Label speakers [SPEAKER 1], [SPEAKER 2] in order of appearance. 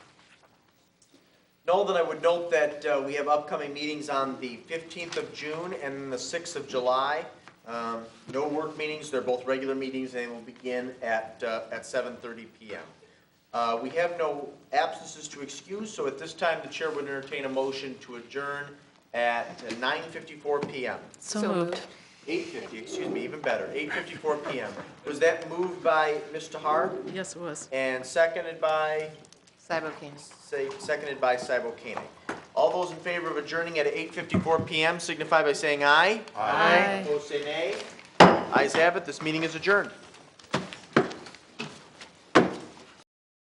[SPEAKER 1] Nolan, I would note that uh, we have upcoming meetings on the 15th of June and the 6th of July. Um, No work meetings, they're both regular meetings, and they will begin at, uh, at 7:30 PM. Uh, We have no absences to excuse, so at this time, the chair would entertain a motion to adjourn at 9:54 PM.
[SPEAKER 2] So moved.
[SPEAKER 1] 8:50, excuse me, even better, 8:54 PM. Was that moved by Mr. Har
[SPEAKER 2] Yes, it was.
[SPEAKER 1] and seconded by?
[SPEAKER 3] Cyber Cannon.
[SPEAKER 1] Say, seconded by Cybo Koenig. All those in favor of adjourning at 8:54 PM signify by saying aye.
[SPEAKER 2] Aye.
[SPEAKER 1] Opposed, say nay. Ayes have it, this meeting is adjourned.